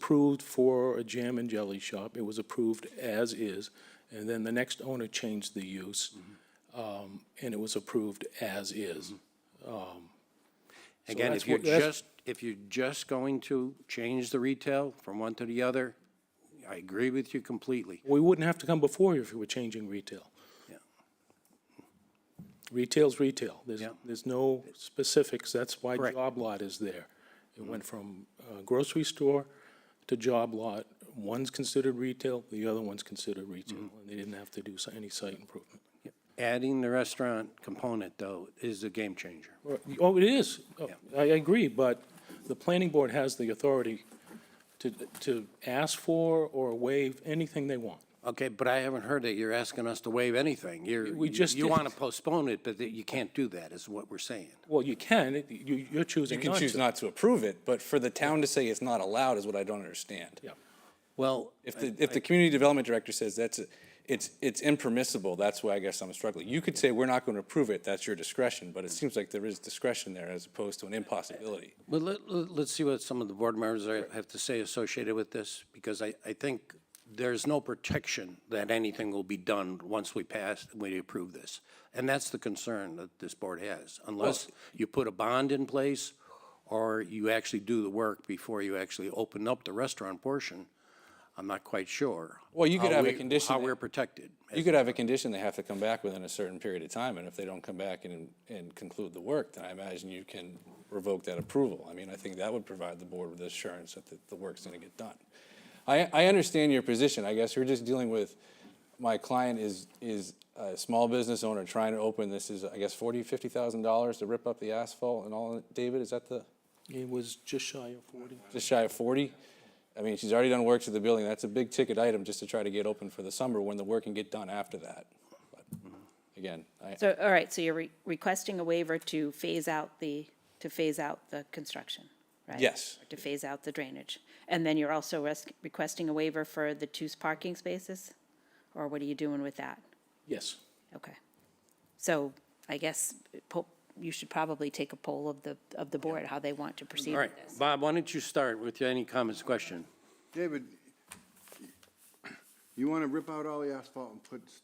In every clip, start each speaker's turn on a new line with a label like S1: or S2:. S1: approved for a jam and jelly shop. It was approved as is. And then the next owner changed the use, um, and it was approved as is.
S2: Mm-hmm. Again,
S1: that's
S2: if you're
S1: what- that's-
S2: just, if you're just going to change the retail from one to the other, I agree with you completely.
S1: We wouldn't have to come before you if we were changing retail.
S2: Yeah.
S1: Retail's retail. There's,
S2: Yeah.
S1: there's no specifics. That's why
S2: Correct. Mm-hmm.
S1: job lot is there. It went from uh, grocery store to job lot. One's considered retail, the other one's considered retail,
S2: Mm-hmm.
S1: and they didn't have to do s- any site improvement.
S2: Adding the restaurant component, though, is a game changer.
S1: Or- Oh, it is. Oh, I I agree, but the planning board has the authority to, to ask for or waive anything they want.
S2: Okay, but I haven't heard that you're asking us to waive anything. You're,
S1: We just
S2: you
S1: did.
S2: want to postpone it, but that you can't do that, is what we're saying.
S1: Well, you can, it- you, you're choosing
S3: You can
S1: not
S3: choose
S1: to.
S3: not to approve it, but for the town to say it's not allowed is what I don't understand.
S1: Yeah.
S2: Well,
S3: If the, if the community development director says that's, a- it's, it's impermissible, that's why I guess I'm struggling. You could say, we're not going to approve it, that's your discretion, but it seems like there is discretion there as opposed to an impossibility.
S2: Well, let, let- let's see what some of the board members are- have to say associated with this, because I, I think there's no protection that anything will be done once we pass, we approve this. And that's the concern that this board has, unless you put a bond in place or you actually do the work before you actually open up the restaurant portion. I'm not quite sure.
S3: Well, you could
S2: how
S3: have a
S2: we-
S3: condition
S2: How
S3: that-
S2: we're protected.
S3: You could have a condition they have to come back within a certain period of time, and if they don't come back and, and conclude the work, then I imagine you can revoke that approval. I mean, I think that would provide the board with assurance that the, the work's gonna get done. I, I understand your position, I guess we're just dealing with, my client is, is a small business owner trying to open, this is, I guess, forty, fifty thousand dollars to rip up the asphalt and all, David, is that the?
S1: It was just shy of 40.
S3: just shy of 40. I mean, she's already done work to the building. That's a big ticket item just to try to get open for the summer when the work can get done after that. But Again, I,
S4: So, all right, so you're re- requesting a waiver to phase out the, to phase out the construction, right?
S3: Yes.
S4: To phase out the drainage. And then you're also res- requesting a waiver for the two parking spaces? Or what are you doing with that?
S1: Yes.
S4: Okay. So I guess po- you should probably take a poll of the, of the board, how they want to proceed
S2: All right,
S4: with this.
S2: Bob, why don't you start with any comments, question?
S5: David, you want to rip out all the asphalt and put s-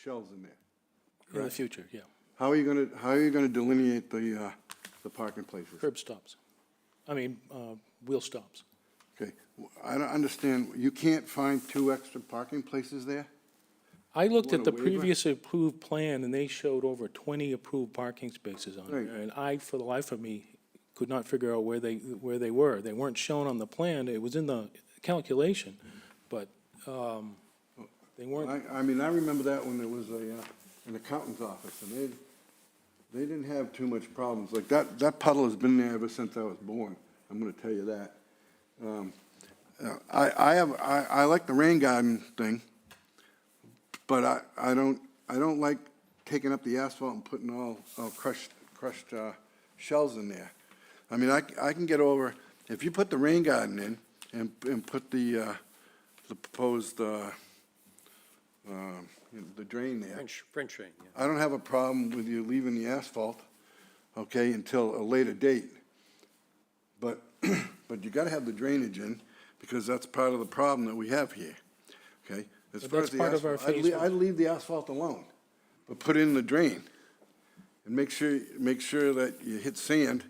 S5: shelves in there.
S1: In the future, yeah.
S5: How are you going to, how are you going to delineate the, uh, the parking places?
S1: Curb stops. I mean, uh, wheel stops.
S5: Okay, W- I don't understand, you can't find two extra parking places there?
S1: I looked at
S5: want
S1: the
S5: a waiver?
S1: previous approved plan, and they showed over 20 approved parking spaces on
S5: Right.
S1: there. And I, for the life of me, could not figure out where they, where they were. They weren't shown on the plan. It was in the calculation, but um, they weren't,
S5: I, I mean, I remember that when there was a, uh, an accountant's office, and they, they didn't have too much problems. Like, that, that puddle has been there ever since I was born, I'm going to tell you that. Um, uh, I, I have, I, I like the rain garden thing, but I, I don't, I don't like taking up the asphalt and putting all, all crushed, crushed uh, shells in there. I mean, I, c- I can get over, if you put the rain garden in and, and put the, uh, the proposed, uh, um, you know, the drain there.
S2: French, French, yeah.
S5: I don't have a problem with you leaving the asphalt, okay, until a later date. But, but you gotta have the drainage in, because that's part of the problem that we have here, okay? As
S1: But
S5: far
S1: that's
S5: as the
S1: part of our
S5: asphalt, I'd
S1: phase
S5: lea-
S1: one.
S5: I'd leave the asphalt alone, but put in the drain. And make sure, make sure that you hit sand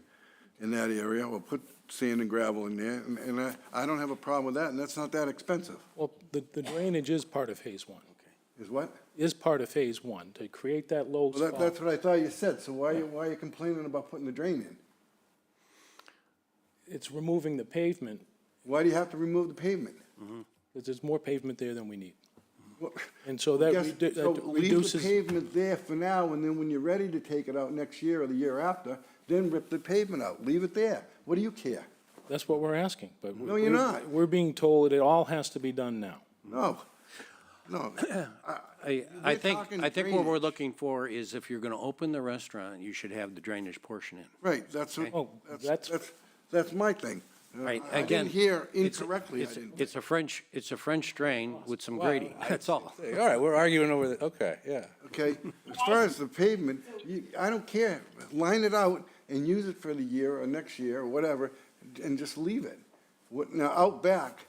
S5: in that area, or put sand and gravel in there, and, and I, I don't have a problem with that, and that's not that expensive,
S1: well, the the drainage is part of Phase 1.
S5: is what?
S1: Is part of Phase 1, to create that low
S5: Well, that,
S1: spot.
S5: that's what I thought you said, so why, you- why are you complaining about putting the drain in?
S1: It's removing the pavement,
S5: Why do you have to remove the pavement?
S1: because there's more pavement there than we need.
S5: Well,
S1: And so that
S5: yes,
S1: redu-
S5: so
S1: that
S5: Leave the
S1: reduces,
S5: pavement there for now, and then when you're ready to take it out next year or the year after, then rip the pavement out, leave it there. What do you care?
S1: that's what we're asking, but.
S5: No, you're
S1: we're-
S5: not.
S1: We're being told it all has to be done now.
S5: No, no.
S2: I, I
S5: We're
S2: think,
S5: talking
S2: I think what we're
S5: drainage.
S2: looking for is if you're gonna open the restaurant, you should have the drainage portion in.
S5: Right, that's, what-
S1: Oh, that's-
S5: that's, that's, that's my thing. Uh,
S2: Right, again.
S5: I- I didn't hear
S2: it's-
S5: incorrectly, I
S2: it's-
S5: didn't.
S2: It's a French, it's a French drain with some grading, that's all.
S3: Hey, all right, we're arguing over the, okay, yeah.
S5: okay? As far as the pavement, you, I don't care, line it out and use it for the year or next year or whatever, and just leave it. Wh- What, now, out back,